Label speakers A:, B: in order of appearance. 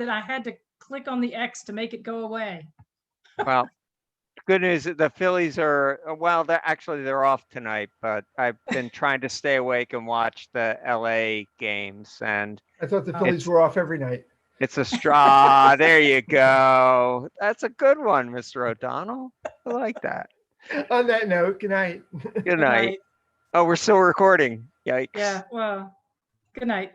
A: that I had to click on the X to make it go away.
B: Well, good news, that the Phillies are, uh, well, they're actually, they're off tonight, but I've been trying to stay awake and watch the LA games and
C: I thought the
A: Oh.
C: Phillies were off every night.
B: it's a straw. There you go. That's a good one, Mr. O'Donnell. I like that.
C: On that note, good night.
B: Good
A: Good
B: night. Oh, we're still recording. Yikes.
A: Yeah, well, good night.